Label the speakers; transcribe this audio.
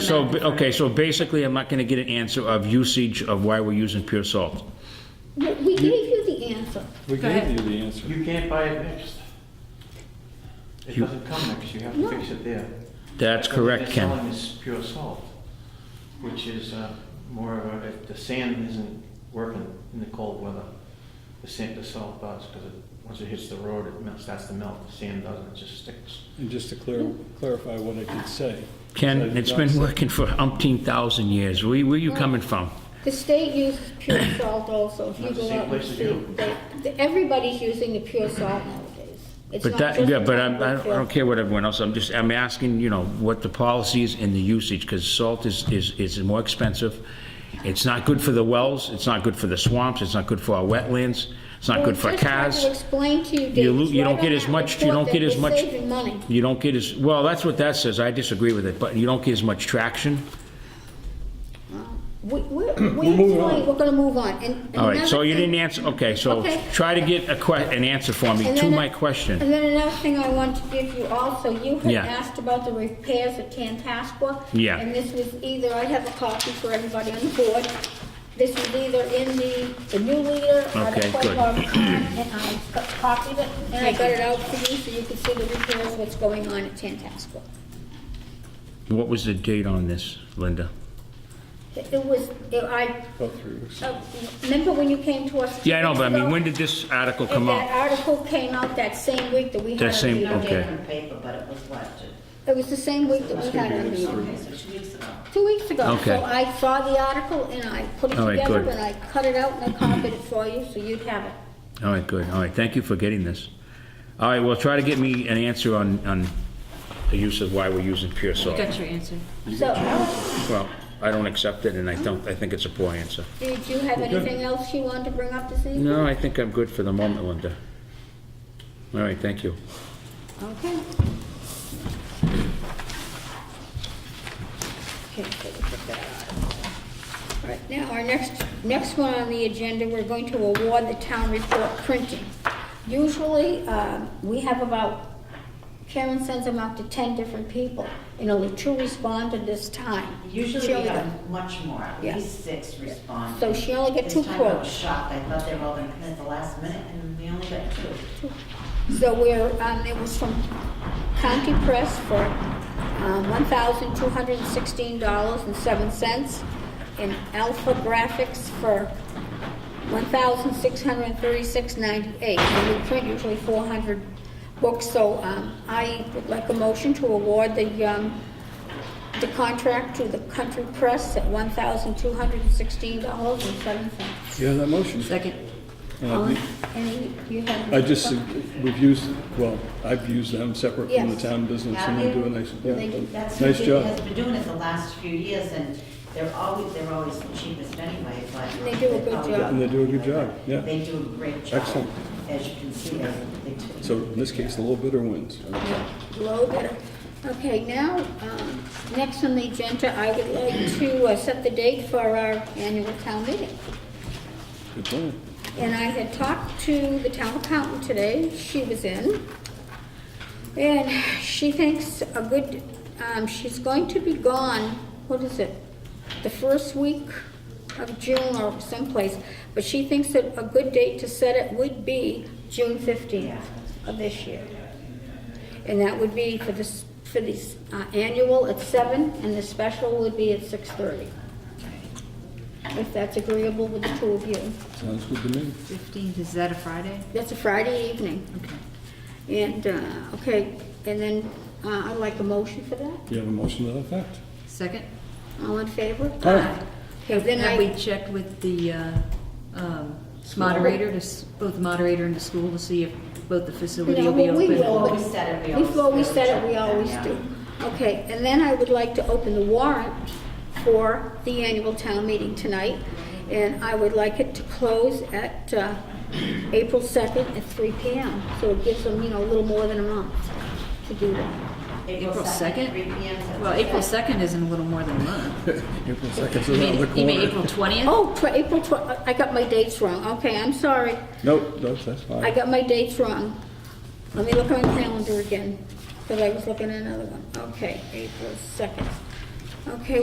Speaker 1: So, ba- okay, so basically, I'm not gonna get an answer of usage of why we're using pure salt.
Speaker 2: W- We gave you the answer.
Speaker 3: We
Speaker 4: Go
Speaker 3: gave
Speaker 4: ahead.
Speaker 3: you the answer.
Speaker 5: You can't buy it mixed. It
Speaker 1: You-
Speaker 5: doesn't come mixed, you have to fix it there.
Speaker 1: That's
Speaker 5: But
Speaker 1: correct,
Speaker 5: What
Speaker 1: Ken.
Speaker 5: they're selling is pure salt, which is uh, more of a, if the sand isn't working in the cold weather, the sand, the salt does, because it, once it hits the road, it melts, that's the melt, the sand doesn't, it just sticks.
Speaker 3: And just to clar- clarify what I did say.
Speaker 1: Ken, it's been working for umpteen thousand years. Where, where you coming from?
Speaker 2: The state uses pure salt also. If you
Speaker 5: Not the
Speaker 2: go
Speaker 5: same
Speaker 2: out and
Speaker 5: place as
Speaker 2: see,
Speaker 5: you.
Speaker 2: they- they- everybody's using the pure salt nowadays. It's
Speaker 1: But
Speaker 2: not
Speaker 1: that,
Speaker 2: just
Speaker 1: yeah, but I'm,
Speaker 2: about
Speaker 1: I don't- I
Speaker 2: pure-
Speaker 1: don't care what everyone else, I'm just, I'm asking, you know, what the policy is and the usage, because salt is, is, is more expensive. It's not good for the wells, it's not good for the swamps, it's not good for our wetlands, it's not good for
Speaker 2: We're just trying
Speaker 1: cars.
Speaker 2: to explain to you,
Speaker 1: You
Speaker 2: Dave,
Speaker 1: lo-
Speaker 2: it's
Speaker 1: you
Speaker 2: right
Speaker 1: don't
Speaker 2: on
Speaker 1: get as
Speaker 2: that
Speaker 1: much, you
Speaker 2: report
Speaker 1: don't
Speaker 2: that
Speaker 1: get as
Speaker 2: we're
Speaker 1: much.
Speaker 2: saving money.
Speaker 1: You don't get as, well, that's what that says, I disagree with it, but you don't get as much traction.
Speaker 2: We- We're, we're going, we're gonna move on. And- and
Speaker 1: All right, so
Speaker 2: another
Speaker 1: you
Speaker 2: thing-
Speaker 1: didn't answer, okay, so
Speaker 2: Okay.
Speaker 1: try to get a que, an answer for me
Speaker 2: And
Speaker 1: to
Speaker 2: then-
Speaker 1: my question.
Speaker 2: And then another thing I want to give you also, you had
Speaker 1: Yeah.
Speaker 2: asked about the repairs at Tantascwa.
Speaker 1: Yeah.
Speaker 2: And this was either, I have a copy for everybody on the board. This was either in the, the new leader or the
Speaker 1: Okay, good.
Speaker 2: Quaybog Con, and I co- copied it, and I got it out for you so you could see the repairs, what's going on at Tantascwa.
Speaker 1: What was the date on this, Linda?
Speaker 2: It it was, it- I,
Speaker 3: About three weeks.
Speaker 2: uh, remember when you came to us?
Speaker 1: Yeah, I know, but I mean,
Speaker 2: ago?
Speaker 1: when did this article
Speaker 2: And
Speaker 1: come
Speaker 2: that
Speaker 1: out?
Speaker 2: article came out that same week that we had.
Speaker 1: That
Speaker 2: a
Speaker 1: same-
Speaker 2: meeting.
Speaker 1: okay.
Speaker 6: different paper, but it was what, two-
Speaker 2: It was the same week that we had. a meeting.
Speaker 6: okay, so two weeks ago.
Speaker 2: Two weeks ago.
Speaker 1: Okay.
Speaker 2: So I saw the article and I put it
Speaker 1: All right,
Speaker 2: together
Speaker 1: good.
Speaker 2: and I cut it out and I copied it for you, so you'd have it.
Speaker 1: All right, good, all right, thank you for getting this. All right, well, try to get me an answer on, on the use of why we're using pure salt.
Speaker 4: Got your answer.
Speaker 2: So, Alex,
Speaker 1: Well, I don't accept it, and I don't, I think it's a poor answer.
Speaker 2: did you have anything else you wanted to bring up this evening?
Speaker 1: No, I think I'm good for the moment, Linda. All right, thank you.
Speaker 2: Okay. Okay, so we put that on. All right, now, our next, next one on the agenda, we're going to award the town report printing. Usually, um, we have about, Karen sends them out to 10 different people, and only two responded this time. She
Speaker 6: Usually we
Speaker 2: only got-
Speaker 6: have much more, at
Speaker 2: Yeah.
Speaker 6: least six respond.
Speaker 2: So she only got two
Speaker 6: This time I
Speaker 2: quotes.
Speaker 6: was shocked, I thought they were all gonna come in at the last minute, and we only got two.
Speaker 2: So we're, um, it was from County Press for, um, one thousand two hundred and sixteen dollars and seven cents. And Alpha Graphics for one thousand six hundred and thirty-six ninety-eight. And we print usually four hundred books, so, um, I would like a motion to award the, um, the contract to the Country Press at one thousand two hundred and sixteen dollars and seven cents.
Speaker 3: You have that motion?
Speaker 4: Second.
Speaker 3: Uh,
Speaker 2: Any, you have?
Speaker 3: I just, we've used, well, I've used them separate from the
Speaker 2: Yes.
Speaker 3: town business and they do a nice,
Speaker 2: They do.
Speaker 6: That's
Speaker 3: yeah,
Speaker 6: what
Speaker 3: nice
Speaker 6: they
Speaker 3: job.
Speaker 6: has been doing it the last few years, and they're always, they're always the cheapest anyway, but.
Speaker 2: They do a good
Speaker 6: Oh,
Speaker 2: job.
Speaker 6: yeah.
Speaker 3: And they do a good job, yeah.
Speaker 6: They do a great job.
Speaker 3: Excellent.
Speaker 6: As you can see, they, they do.
Speaker 3: So in this case, the little bidder wins.
Speaker 2: Low bidder. Okay, now, um, next on the agenda, I would like to uh, set the date for our annual town meeting.
Speaker 3: Good plan.
Speaker 2: And I had talked to the town accountant today, she was in. And she thinks a good, um, she's going to be gone, what is it? The first week of June or someplace, but she thinks that a good date to set it would be June fifteenth of this year. And that would be for this, for this, uh, annual at seven, and the special would be at six thirty. If that's agreeable with the two of you.
Speaker 3: Sounds good to me.
Speaker 4: 15th, is that a Friday?
Speaker 2: That's a Friday evening. Okay. And, uh, okay, and then uh, I'd like a motion for that.
Speaker 3: You have a motion to that effect?
Speaker 4: Second?
Speaker 2: All in favor?
Speaker 3: Aye.
Speaker 2: Okay, then
Speaker 4: Have we
Speaker 2: I,
Speaker 4: checked with the uh, um, moderator, to s- both the moderator and the school, to see if both the facility
Speaker 2: No,
Speaker 4: will be
Speaker 2: but we
Speaker 4: open?
Speaker 2: will.
Speaker 6: Before we set it, we always.
Speaker 2: before we
Speaker 6: double
Speaker 2: set it,
Speaker 6: check
Speaker 2: we
Speaker 6: that,
Speaker 2: always
Speaker 6: yeah.
Speaker 2: do. Okay, and then I would like to open the warrant for the annual town meeting tonight. And I would like it to close at uh, April 2nd at 3 PM. So it gives them, you know, a little more than a month to do that.
Speaker 4: April 2nd?
Speaker 6: Three P M.
Speaker 4: Well, April 2nd isn't a little more than a month.
Speaker 3: April 2nd,
Speaker 4: You
Speaker 3: so
Speaker 4: mean
Speaker 3: another
Speaker 4: you mean April
Speaker 3: quarter.
Speaker 4: 20th?
Speaker 2: Oh, tw- April 12th, I got my dates wrong. Okay, I'm sorry.
Speaker 3: Nope, that's, that's
Speaker 2: I
Speaker 3: fine.
Speaker 2: got my dates wrong. Let me look at my calendar again, because I was looking at another one. Okay, April 2nd. Okay,